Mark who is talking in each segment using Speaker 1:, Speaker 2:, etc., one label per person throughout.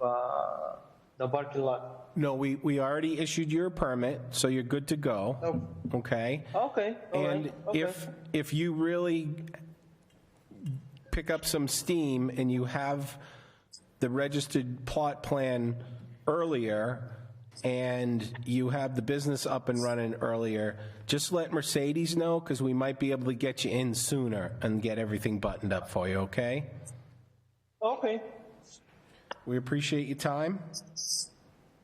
Speaker 1: uh, the parking lot.
Speaker 2: No, we, we already issued your permit, so you're good to go. Okay?
Speaker 1: Okay, Oh, all right.
Speaker 2: Oh. And
Speaker 1: okay.
Speaker 2: if, if you really pick up some steam and you have the registered plot plan earlier and you have the business up and running earlier, just let Mercedes know because we might be able to get you in sooner and get everything buttoned up for you, okay?
Speaker 1: Okay,
Speaker 2: We appreciate your time.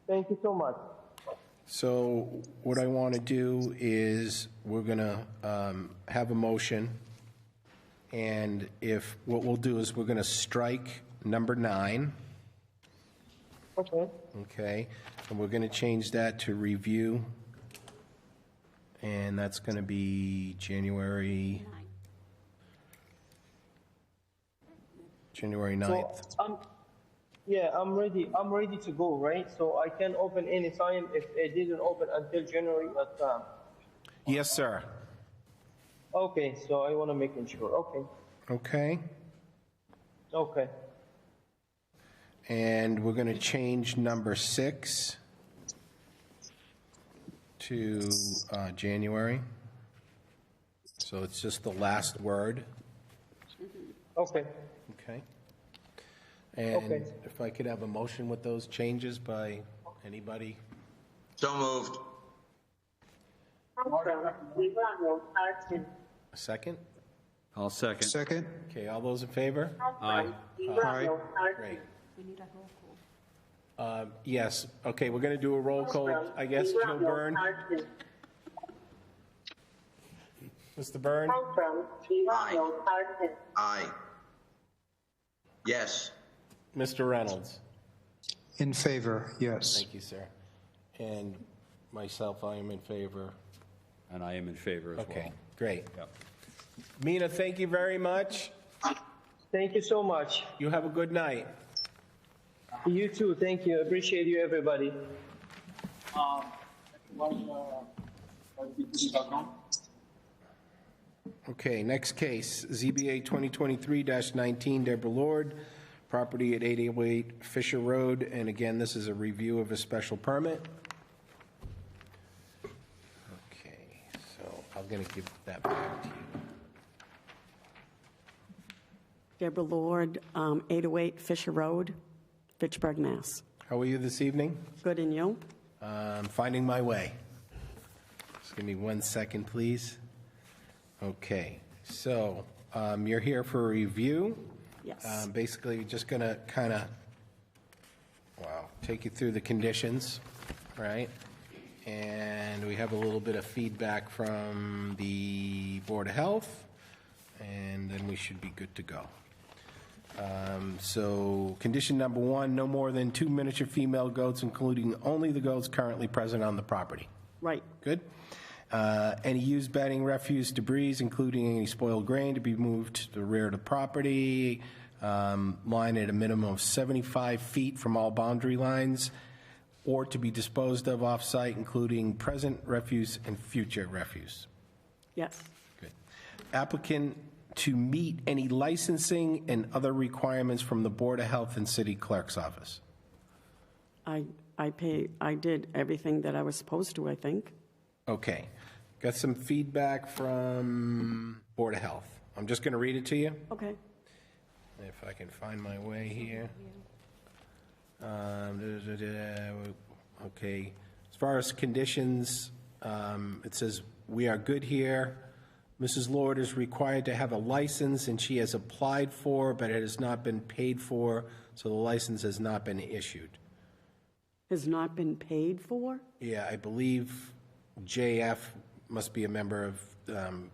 Speaker 1: thank you so much.
Speaker 2: So what I want to do is, we're going to have a motion, and if, what we'll do is, we're going to strike number nine,
Speaker 1: Okay,
Speaker 2: okay? And we're going to change that to review, and that's going to be January, January
Speaker 1: so
Speaker 2: 9th.
Speaker 1: I'm, yeah, I'm ready, I'm ready to go, right? So I can open any time if it didn't open until January, but, um,
Speaker 2: Yes, sir.
Speaker 1: okay, so I wanna make sure, okay,
Speaker 2: Okay?
Speaker 1: okay,
Speaker 2: And we're going to change number six to uh, January. So it's just the last word,
Speaker 1: okay.
Speaker 2: okay? And
Speaker 1: Okay.
Speaker 2: if I could have a motion with those changes by anybody?
Speaker 3: So moved.
Speaker 4: Also, we run road parking.
Speaker 2: A second?
Speaker 5: I'll second.
Speaker 3: Second?
Speaker 2: Okay, all those in favor?
Speaker 4: Also, we run road parking.
Speaker 2: Great. Um, Yes, okay, we're going to do a roll call, I guess,
Speaker 4: We
Speaker 2: Joe
Speaker 4: run road
Speaker 2: Byrne,
Speaker 4: parking.
Speaker 2: Mr. Byrne,
Speaker 4: Also, we run
Speaker 3: Aye.
Speaker 4: road parking.
Speaker 3: Aye. Yes.
Speaker 2: Mr. Reynolds.
Speaker 6: In favor, yes.
Speaker 2: Thank you, sir. And myself, I am in favor.
Speaker 5: And I am in favor as well.
Speaker 2: Okay, great.
Speaker 5: Yep.
Speaker 2: Mina, thank you very much.
Speaker 1: Thank you so much.
Speaker 2: You have a good night.
Speaker 1: You too, thank you, appreciate you, everybody.
Speaker 2: Okay, next case, ZBA 2023-19, Deborah Lord, property at 808 Fisher Road, and again, this is a review of a special permit. Okay, so I'm going to give that back to you.
Speaker 7: Deborah Lord, um, 808 Fisher Road, Fitchburg, Mass.
Speaker 2: How are you this evening?
Speaker 7: Good and you?
Speaker 2: I'm finding my way. Just give me one second, please. Okay, so um, you're here for a review.
Speaker 7: Yes.
Speaker 2: Um, Basically, we're just going to kind of, wow, take you through the conditions, right? And we have a little bit of feedback from the Board of Health, and then we should be good to go. Um, So, condition number one, no more than two miniature female goats, including only the goats currently present on the property.
Speaker 7: Right.
Speaker 2: Good. Uh, Any used bedding, refuse, debris, including any spoiled grain, to be moved to the rear of the property. um, Line at a minimum of 75 feet from all boundary lines, or to be disposed of off-site, including present refuse and future refuse.
Speaker 7: Yes.
Speaker 2: Good. Applicant to meet any licensing and other requirements from the Board of Health and City Clerk's Office.
Speaker 7: I, I pay, I did everything that I was supposed to, I think.
Speaker 2: Okay. Got some feedback from Board of Health. I'm just going to read it to you.
Speaker 7: Okay.
Speaker 2: If I can find my way here. Um, duh, duh, duh, duh, Okay, as far as conditions, um, it says, "We are good here. Mrs. Lord is required to have a license, and she has applied for, but it has not been paid for, so the license has not been issued."
Speaker 7: Has not been paid for?
Speaker 2: Yeah, I believe JF must be a member of um,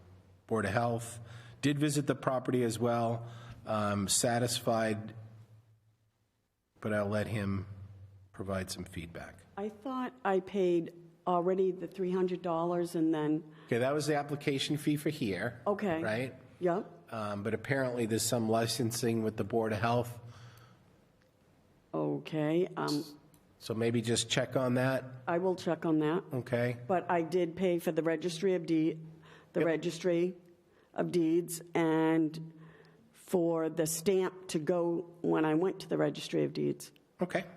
Speaker 2: Board of Health. Did visit the property as well, um, satisfied, but I'll let him provide some feedback.
Speaker 7: I thought I paid already the $300 and then,
Speaker 2: Okay, that was the application fee for here.
Speaker 7: Okay.
Speaker 2: Right?
Speaker 7: yep,
Speaker 2: Um, But apparently, there's some licensing with the Board of Health,
Speaker 7: okay. um,
Speaker 2: so maybe just check on that,
Speaker 7: I will check on that.
Speaker 2: okay?
Speaker 7: But I did pay for the registry of deed, the registry of deeds, and for the stamp to go when I went to the registry of deeds.
Speaker 2: Okay.